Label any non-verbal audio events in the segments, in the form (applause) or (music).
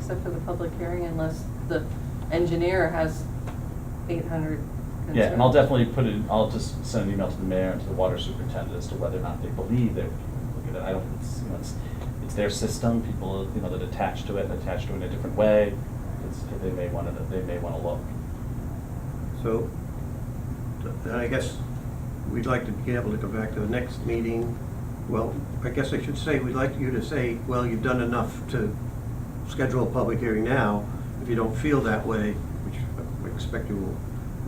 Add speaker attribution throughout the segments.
Speaker 1: set for the public hearing unless the engineer has eight hundred concerns.
Speaker 2: Yeah, and I'll definitely put it, I'll just send an email to the mayor and to the water superintendent as to whether or not they believe that, look at it, I don't, it's, you know, it's, it's their system, people, you know, that attach to it, and attach to it in a different way. It's, they may wanna, they may wanna look.
Speaker 3: So, th- then I guess we'd like to be able to go back to the next meeting. Well, I guess I should say, we'd like you to say, well, you've done enough to schedule a public hearing now. If you don't feel that way, which I expect you will.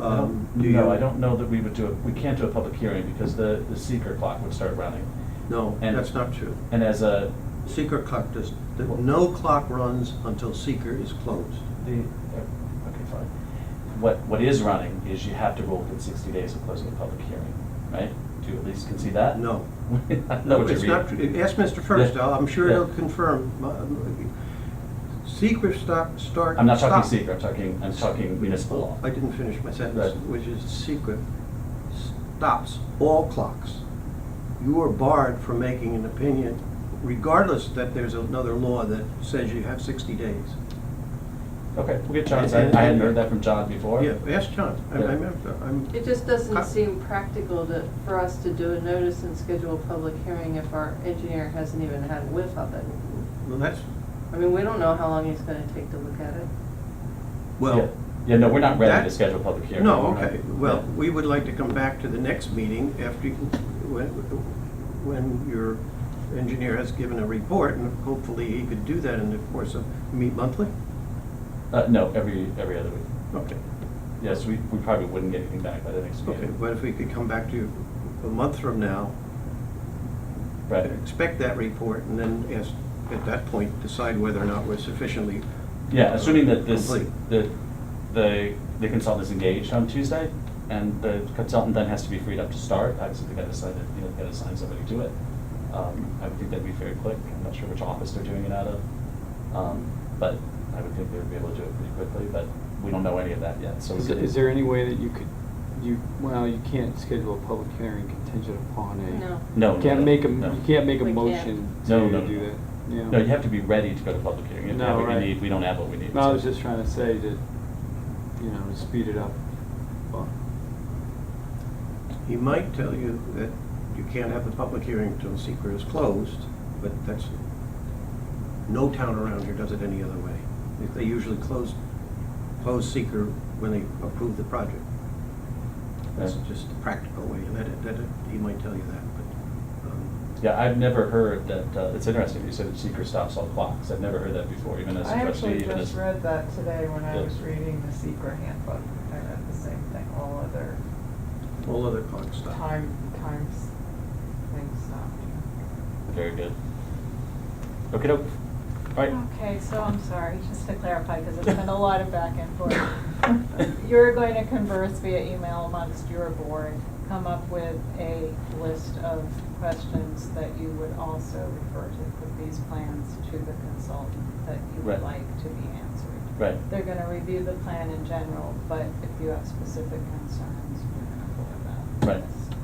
Speaker 2: I
Speaker 3: um,
Speaker 2: don't-
Speaker 3: do you-
Speaker 2: No, I don't know that we would do it, we can't do a public hearing because the, the seeker clock would start running.
Speaker 3: No,
Speaker 2: And-
Speaker 3: that's not true.
Speaker 2: And as a,
Speaker 3: Secret clock does, the- no clock runs until seeker is closed.
Speaker 2: the, uh, okay, fine. What, what is running is you have to rule within sixty days of closing a public hearing, right? Do you at least concede that?
Speaker 3: No.
Speaker 2: (laughs) I know what you
Speaker 3: It's
Speaker 2: mean.
Speaker 3: not, true. ask Mr. Firstall, I'm sure
Speaker 2: Yeah.
Speaker 3: he'll confirm. Secret stop, start.
Speaker 2: I'm not talking
Speaker 3: stop-
Speaker 2: secret, I'm talking, I'm talking municipal law.
Speaker 3: I didn't finish my sentence,
Speaker 2: Right.
Speaker 3: which is secret stops all clocks. You are barred from making an opinion regardless that there's another law that says you have 60 days.
Speaker 2: Okay, we'll get John's, I I hadn't heard that from John before.
Speaker 3: Yeah, ask John. I- I
Speaker 2: Yeah.
Speaker 3: remember- I'm-
Speaker 1: It just
Speaker 3: Co-
Speaker 1: doesn't seem practical to, for us to do a notice and schedule a public hearing if our engineer hasn't even had a whiff of it.
Speaker 3: Well, that's,
Speaker 1: I mean, we don't know how long he's gonna take to look at it.
Speaker 2: Yeah.
Speaker 3: well,
Speaker 2: Yeah, no, we're not ready to
Speaker 3: that-
Speaker 2: schedule a public hearing.
Speaker 3: no,
Speaker 2: We're not-
Speaker 3: okay. Well,
Speaker 2: yeah.
Speaker 3: we would like to come back to the next meeting after, you- when when your engineer has given a report, and hopefully he could do that in the course of, meet monthly?
Speaker 2: Uh, no, every, every other week.
Speaker 3: Okay.
Speaker 2: Yes, we, we probably wouldn't get anything back by the next
Speaker 3: Okay,
Speaker 2: meeting.
Speaker 3: but if we could come back to you a month from now,
Speaker 2: Right,
Speaker 3: expect that report, and then ask, at that point, decide whether or not we're sufficiently.
Speaker 2: yeah, assuming that this,
Speaker 3: Complete.
Speaker 2: the, the the consultant is engaged on Tuesday, and the consultant then has to be freed up to start, obviously they gotta assign, it- you know, gotta assign somebody to it. Um, I would think that'd be very quick, I'm not sure which office they're doing it out of, um, but I would think they would be able to do it pretty quickly, but we don't know any of that yet, so. we
Speaker 4: Is,
Speaker 2: could-
Speaker 4: is there any way that you could, you, well, you can't schedule a public hearing contingent upon a.
Speaker 1: No.
Speaker 2: No.
Speaker 4: You Can't
Speaker 2: no,
Speaker 4: make a,
Speaker 2: no.
Speaker 4: you can't make a
Speaker 1: We can't.
Speaker 4: motion
Speaker 2: No,
Speaker 4: to
Speaker 2: no, no,
Speaker 4: do
Speaker 2: no.
Speaker 4: that. Yeah.
Speaker 2: No, you have to be ready to go to public hearing. If you have
Speaker 4: No,
Speaker 2: what you
Speaker 4: right.
Speaker 2: need, we don't have what we need.
Speaker 4: No, I was
Speaker 2: so-
Speaker 4: just trying to say that, you know, to speed it up. Well,
Speaker 3: He might tell you that you can't have the public hearing until secret is closed, but that's, no town around here does it any other way. They- They usually close, close seeker when they approve the project. That's
Speaker 2: Yeah.
Speaker 3: just the practical way, and that, that, he might tell you that, but, um,
Speaker 2: Yeah, I've never heard that, uh, it's interesting, you said that seeker stops all clocks. I've never heard that before, even as a
Speaker 5: I
Speaker 2: trustee,
Speaker 5: actually
Speaker 2: even as.
Speaker 5: just read that today when I
Speaker 2: Yeah.
Speaker 5: was reading the secret handbook. I read the same thing, all other
Speaker 3: all other clock stuff.
Speaker 5: time, times, things stopped.
Speaker 2: Very good. Okay, doke. All right.
Speaker 6: Okay, so I'm sorry, just to clarify, because
Speaker 2: (laughs)
Speaker 6: it's been a lot of back and forth. You're going to converse via email amongst your board, come up with a list of questions that you would also refer to with these plans to the consultant that you
Speaker 2: Right.
Speaker 6: would like to be answered.
Speaker 2: Right.
Speaker 6: They're going to review the plan in general, but if you have specific concerns, you're going to forward that.
Speaker 2: Right.
Speaker 6: to us.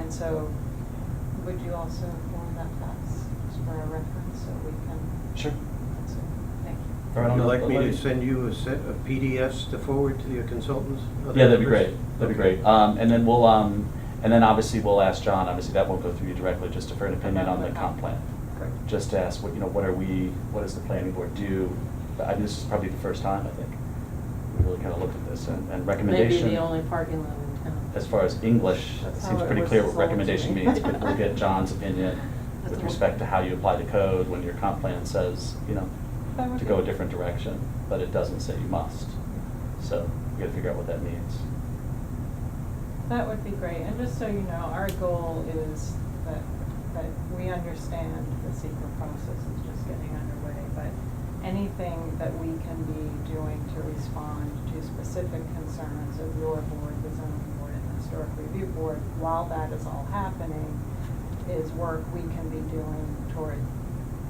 Speaker 6: And so would you also forward that to us just for our reference so we can
Speaker 2: Sure.
Speaker 6: so, Thank you.
Speaker 2: All right,
Speaker 3: Would
Speaker 2: I'll-
Speaker 3: you like
Speaker 2: I'll
Speaker 3: me
Speaker 2: let
Speaker 3: to
Speaker 2: you-
Speaker 3: send you a set of PDFs to forward to your consultants? other
Speaker 2: Yeah, that'd be
Speaker 3: members?
Speaker 2: great, that'd be
Speaker 3: Okay.
Speaker 2: great. Um, and then we'll, um, and then obviously we'll ask John, obviously that won't go through you directly, just to for an opinion on the comp plan.
Speaker 6: Correct.
Speaker 2: Just to ask, what, you know, what are we, what does the planning board do? I, this is probably the first time, I think, we really kind of looked at this and and recommendation.
Speaker 1: Maybe the only parking lot in town.
Speaker 2: as far as English, it
Speaker 5: That's
Speaker 2: seems
Speaker 5: how it
Speaker 2: pretty
Speaker 5: was
Speaker 2: clear what
Speaker 5: sold to
Speaker 2: recommendation
Speaker 5: me. (laughs)
Speaker 2: means, but we'll get John's opinion
Speaker 1: That's
Speaker 2: with
Speaker 1: all.
Speaker 2: respect to how you apply the code when your comp plan says, you know,
Speaker 6: That would
Speaker 2: to
Speaker 6: be-
Speaker 2: go a different direction, but it doesn't say you must. So we gotta figure out what that means.
Speaker 6: That would be great, and just so you know, our goal is that, that we understand the secret process is just getting underway, but anything that we can be doing to respond to specific concerns of your board, the zoning board, and the historic review board, while that is all happening, is work we can be doing toward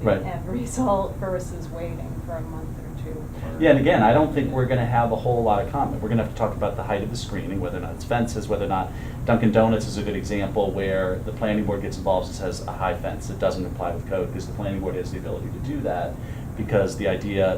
Speaker 6: the
Speaker 2: Right.
Speaker 6: end result versus waiting for a month or two. for-
Speaker 2: Yeah, and again, I don't think we're gonna have a whole lot of comment. We're gonna have to talk about the height of the screening, whether or not it's fences, whether or not Dunkin' Donuts is a good example where the planning board gets involved and says a high fence, it doesn't comply with code, because the planning board has the ability to do that, because the idea